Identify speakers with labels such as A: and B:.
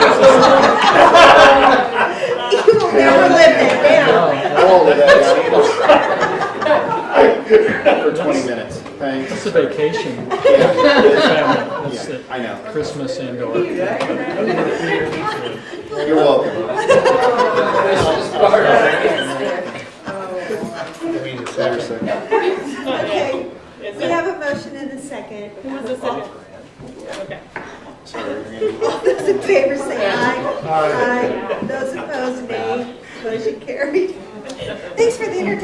A: thanks.
B: It's a vacation for
A: Yeah,
B: the family. That's
A: yeah,
B: it.
A: I know.
B: Christmas and or.
A: You're welcome. Is there a second?
C: Okay, we have a motion and a second. Who was the second?
A: Sorry, we're gonna-
C: All those in favor say aye. Aye. Those opposed, nay. Motion carried. Thank you.